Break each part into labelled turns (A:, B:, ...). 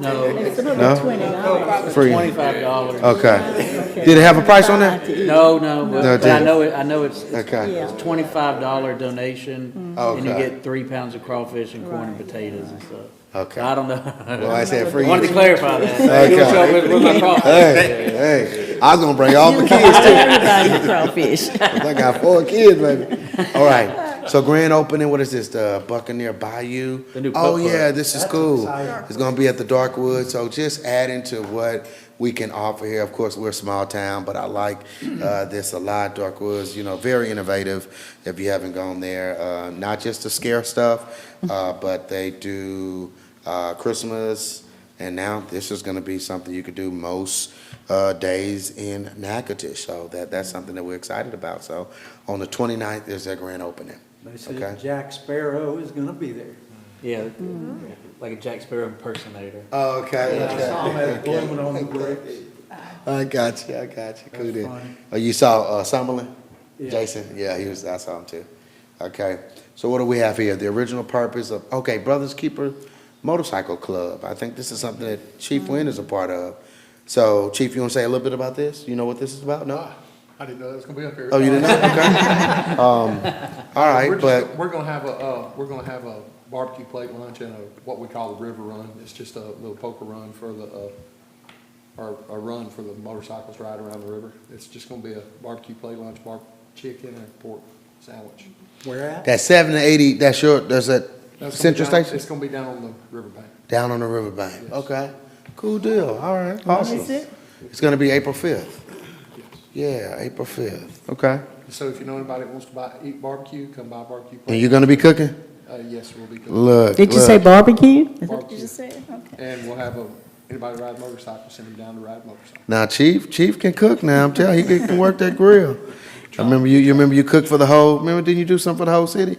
A: No,
B: It's about
C: No?
B: twenty dollars.
C: Free.
A: twenty-five dollars.
C: Okay. Did it have a price on there?
A: No, no, but,
C: No, it
A: but I
C: didn't.
A: know it, I know it's, it's
C: Okay. Mm-hmm.
A: it's twenty-five dollar donation, and you
C: Okay.
A: get three pounds of crawfish and corn and potatoes and stuff.
C: Okay.
A: I don't know.
C: Well, I said free.
A: I wanted to clarify that. You don't show up with- with my crawfish.
C: Hey, hey, I was gonna bring all the kids too.
B: Everybody's a crawfish.
C: I got four kids, baby. All right. So grand opening. What is this? The Buccaneer Bayou.
A: The new
C: oh
A: putt-putt.
C: yeah, this is cool. It's gonna be at the Darkwood. So just adding to what we can offer here. Of course, we're a small town, but I like uh, this a lot. Darkwoods, you know, very innovative. If you haven't gone there, uh, not just to scare stuff, uh, but they do uh, Christmas. And now this is going to be something you could do most uh, days in Natchitoches. So that, that's something that we're excited about. So on the 29th is their grand opening.
D: They
C: Okay.
D: said Jack Sparrow is gonna be there.
A: Yeah, like a Jack Sparrow impersonator.
C: Okay.
D: Tom had blooming on the bricks.
C: I got you. I got you. Cool
D: That's
C: deal.
D: fine.
C: Oh, you saw uh, Summerlin?
D: Yeah.
C: Jason? Yeah, he was. I saw him too. Okay. So what do we have here? The original purpose of okay, Brothers Keeper Motorcycle Club. I think this is something that Chief Wynn is a part of. So Chief, you want to say a little bit about this? You know what this is about? No.
E: I didn't know that was gonna be up here.
C: Oh, you didn't know? Okay. Um, all
E: We're
C: right,
E: just-
C: but,
E: We're gonna have a, uh, we're gonna have a barbecue plate lunch and a, what we call the river run. It's just a little poker run for the, uh, or a run for the motorcycles ride around the river. It's just gonna be a barbecue plate lunch, bar, chicken and pork sandwich.
D: Where at?
C: that seven to eighty, that's your, that's that
E: That's gonna be
C: central
E: down-
C: station?
E: It's gonna be down on the riverbank.
C: Down on the riverbank,
E: Yes.
C: okay. Cool deal, all right,
B: When is
C: awesome.
B: it?
C: It's gonna be April fifth,
E: Yes.
C: yeah, April fifth, okay.
E: So if you know anybody that wants to buy, eat barbecue, come buy barbecue.
C: And
E: plate.
C: you're gonna be cooking?
E: Uh, yes, we'll be cooking
C: Look,
B: Did you say
C: look.
B: barbecue?
E: barbecue.
B: said? Okay.
E: And we'll have a, anybody ride motorcycle, send them down to ride motorcycle.
C: Now Chief, Chief can cook now, I'm telling you, he can- can work that grill. I remember you, you remember you cooked for the whole, remember, didn't you do something for the whole city?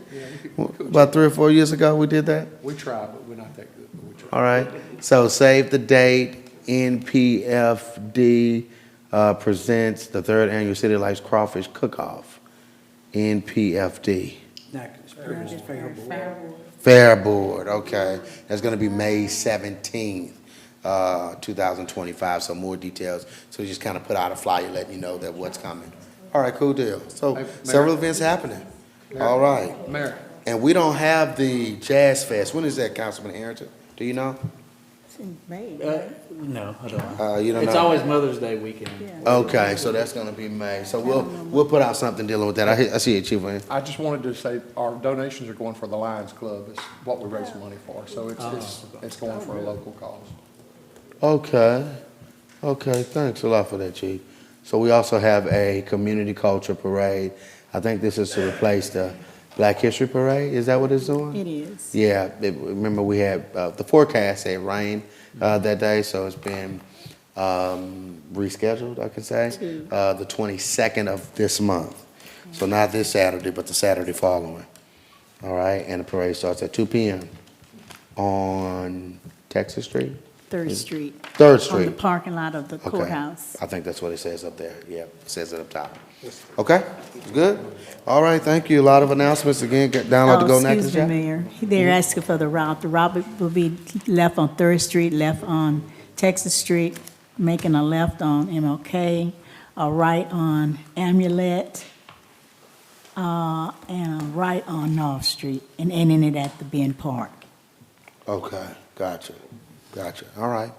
C: About three or four years ago, we did that?
E: We try, but we're not that good, but we try.
C: All right, so save the date, NPFD uh, presents the third annual City Lights Crawfish Cook-Off, NPFD.
D: Natchez Sparrow's favorable.
C: Fair Board, okay, that's gonna be May seventeenth, uh, two thousand twenty-five, so more details. So just kind of put out a flyer letting you know that what's coming. All right, cool deal,
E: Hey,
C: so
E: Mayor.
C: several events happening, all right.
E: Mayor,
C: And we don't have the Jazz Fest, when is that, Councilman Harrington, do you know?
B: It's in May,
A: Uh,
B: right?
A: no, I don't.
C: Uh, you don't
A: It's
C: know?
A: always Mother's Day weekend.
B: Yeah.
C: Okay, so that's gonna be May. So we'll, we'll put out something dealing with that. I, hear- I see it, Chief Wayne.
E: I just wanted to say, our donations are going for the Lions Club, it's what we raise money for, so it's, it's, it's going for a local cause.
C: Okay, okay, thanks a lot for that, Chief. So we also have a community culture parade. I think this is to replace the Black History Parade. Is that what it's doing?
B: It is.
C: Yeah, it- remember we had, uh, the forecast said rain, uh, that day, so it's been, um, rescheduled, I could say.
B: To-
C: Uh, the twenty-second of this month. So not this Saturday, but the Saturday following. All right, and the parade starts at two P M on Texas Street,
B: Third Street.
C: Third
B: On
C: Street.
B: the parking lot of the
C: Okay.
B: courthouse.
C: I think that's what it says up there, yeah, it says it up top. Okay, good, all right, thank you, a lot of announcements, again, get- download the
B: Oh,
C: Go Natchez
B: Excuse me,
C: app.
B: Mayor. They're asking for the route. The route will be left on Third Street, left on Texas Street, making a left on MLK, a right on Amulet, uh, and a right on North Street, and ending it at the Ben Park.
C: Okay, gotcha, gotcha, all right,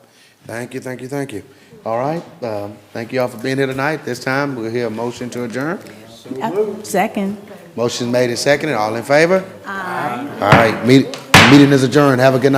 C: thank you, thank you, thank you. All right, um, thank you all for being here tonight, this time, we'll hear a motion to adjourn.
B: Uh, Second.
C: Motion made and seconded, all in favor? Aye. All right, meet, meeting is adjourned, have a good night.